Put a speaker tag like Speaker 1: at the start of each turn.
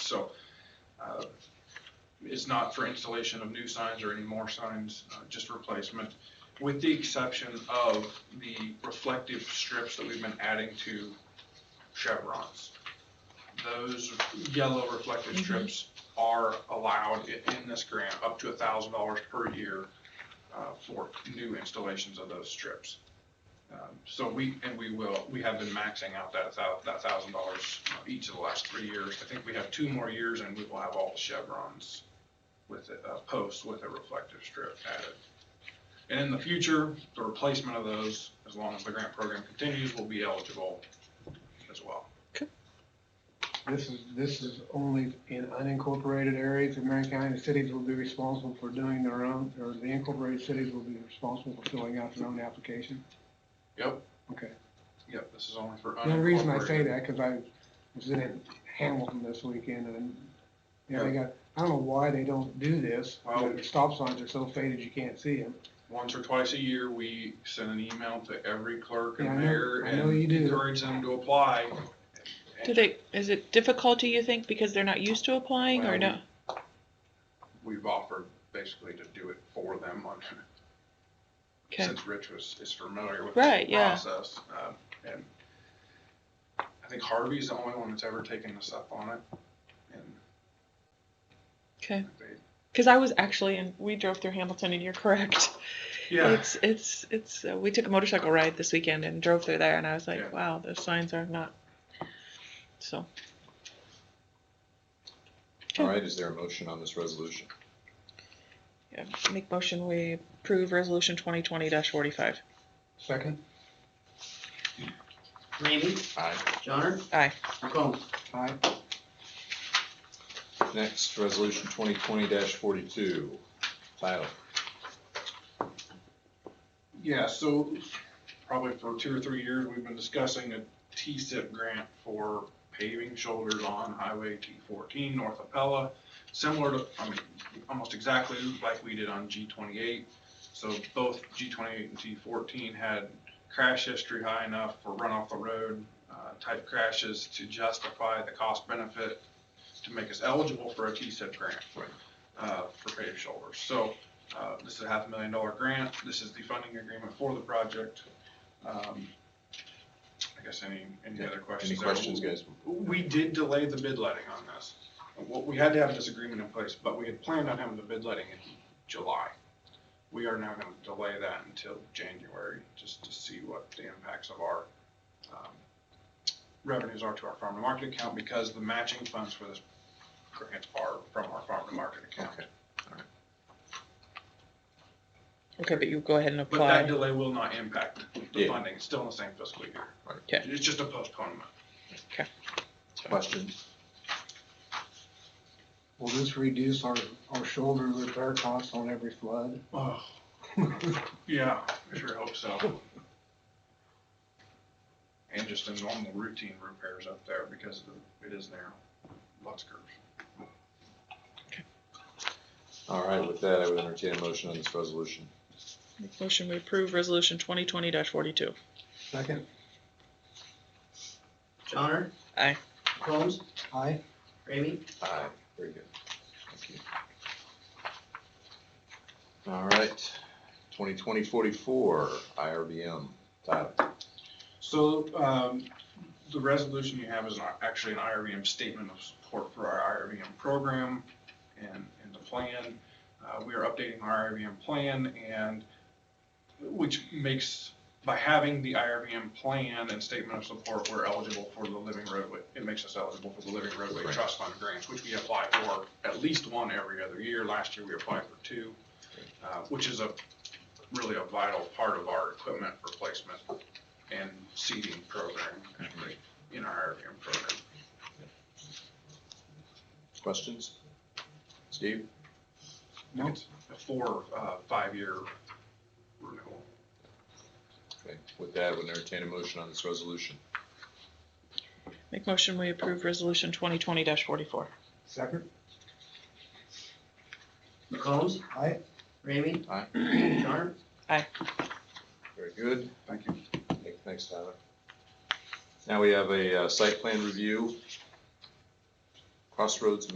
Speaker 1: So uh, it's not for installation of new signs or any more signs, uh, just replacement, with the exception of the reflective strips that we've been adding to chevrons. Those yellow reflective
Speaker 2: Mhm.
Speaker 1: strips are allowed i- in this grant up to thousand dollars per year uh, for new installations of those strips. Um, So we, and we will, we have been maxing out that thou, that thousand dollars uh, each of the last three years. I think we have two more years and we will have all the chevrons with, a- uh, posts with a reflective strip added. And in the future, the replacement of those, as long as the grant program continues, will be eligible as well.
Speaker 3: This is, this is only in unincorporated areas of Marion County. The cities will be responsible for doing their own, or the incorporated cities will be responsible for filling out their own application.
Speaker 1: Yep,
Speaker 3: Okay.
Speaker 1: yep, this is only for
Speaker 3: The only reason I say
Speaker 1: unincorporated.
Speaker 3: that, because I was in Hamilton this weekend and, you know, they got, I don't know why they don't do this.
Speaker 1: Well-
Speaker 3: The stop signs are so faded you can't see them.
Speaker 1: Once or twice a year, we send an email to every clerk
Speaker 3: Yeah, I
Speaker 1: and
Speaker 3: know-
Speaker 1: mayor
Speaker 3: I know you
Speaker 1: and
Speaker 3: do.
Speaker 1: encourage them to apply.
Speaker 2: Do they, is it difficulty, you think, because they're not used to applying or
Speaker 1: Well,
Speaker 2: no?
Speaker 1: We've offered basically to do it for them on,
Speaker 2: Okay,
Speaker 1: since Rich was, is familiar with the
Speaker 2: Right, yeah.
Speaker 1: process. um, And I think Harvey's the only one that's ever taken us up on it. And
Speaker 2: okay.
Speaker 1: they,
Speaker 2: Because I was actually, in we drove through Hamilton and you're correct.
Speaker 1: yeah,
Speaker 2: It's, it's, it's, uh, we took a motorcycle ride this weekend and drove through there and I was
Speaker 1: Yeah.
Speaker 2: like, wow, those signs are not, so.
Speaker 4: All right, is there a motion on this resolution?
Speaker 2: yeah. Make motion, we approve resolution twenty twenty forty-five.
Speaker 3: Second?
Speaker 5: Ramey,
Speaker 4: Aye.
Speaker 5: Johnner,
Speaker 2: Aye.
Speaker 5: McCombs.
Speaker 3: Aye.
Speaker 4: Next, resolution twenty twenty forty-two, Plato.
Speaker 1: yeah, so probably for two or three years, we've been discussing a T-SIP grant for paving shoulders on Highway T fourteen north of Pella, similar to, I mean, almost exactly like we did on G twenty-eight. So both G twenty-eight and T fourteen had crash history high enough for run off the road, uh, type crashes to justify the cost benefit to make us eligible for a T-SIP grant.
Speaker 4: Right.
Speaker 1: Uh, for paved shoulders. So, uh, this is a half a million dollar grant. This is the funding agreement for the project. Um, I guess any, any other questions?
Speaker 4: Any
Speaker 1: there?
Speaker 4: questions, guys?
Speaker 1: We did delay the bid letting on this. What, we had to have this agreement in place, but we had planned on having the bid letting in July. We are now gonna delay that until January, just to see what the impacts of our, um, revenues are to our farm to market account, because the matching funds for this grant are from our farm to market account.
Speaker 4: Okay.
Speaker 2: Okay, but you go ahead and
Speaker 1: But that
Speaker 2: apply.
Speaker 1: delay will not impact the
Speaker 4: Yeah.
Speaker 1: funding, it's still in the same fiscal year.
Speaker 4: Right.
Speaker 2: Okay.
Speaker 1: It's just a postponement.
Speaker 4: Questions?
Speaker 3: Will this reduce our, our shoulder repair costs on every flood?
Speaker 1: Oh, yeah, I sure hope so. And just the normal routine repairs up there because the- it is narrow, lots of curves.
Speaker 4: All right, with that, I would entertain a motion on this resolution.
Speaker 2: Make motion, we approve resolution twenty twenty forty-two.
Speaker 3: Second?
Speaker 5: Johnner.
Speaker 2: Aye.
Speaker 5: McCombs,
Speaker 3: Aye.
Speaker 5: Ramey,
Speaker 4: Aye. Very good. Thank you. All right, twenty twenty forty-four, IRBM, Tyler.
Speaker 1: So, um, the resolution you have is not actually an IRBM statement of support for our IRBM program and, and the plan. Uh, we are updating our IRBM plan and, which makes, by having the IRBM plan and statement of support, we're eligible for the living roadway. It makes us eligible for the living roadway
Speaker 4: Right.
Speaker 1: trust fund grants, which we apply for at least one every other year. Last year, we applied for two, uh, which is a, really a vital part of our equipment replacement and seeding program actually, in our IRBM program.
Speaker 4: Questions? Steve?
Speaker 3: No.
Speaker 1: It's a four, uh, five-year renewal.
Speaker 4: Okay, with that, I would entertain a motion on this resolution.
Speaker 2: Make motion, we approve resolution twenty twenty forty-four.
Speaker 3: Second?
Speaker 5: McCombs,
Speaker 3: Aye.
Speaker 5: Ramey.
Speaker 4: Aye.
Speaker 5: Johnner.
Speaker 4: Very good.
Speaker 1: Thank you.
Speaker 4: Thank- Thanks, Tyler. Now we have a uh, site plan review. Crossroads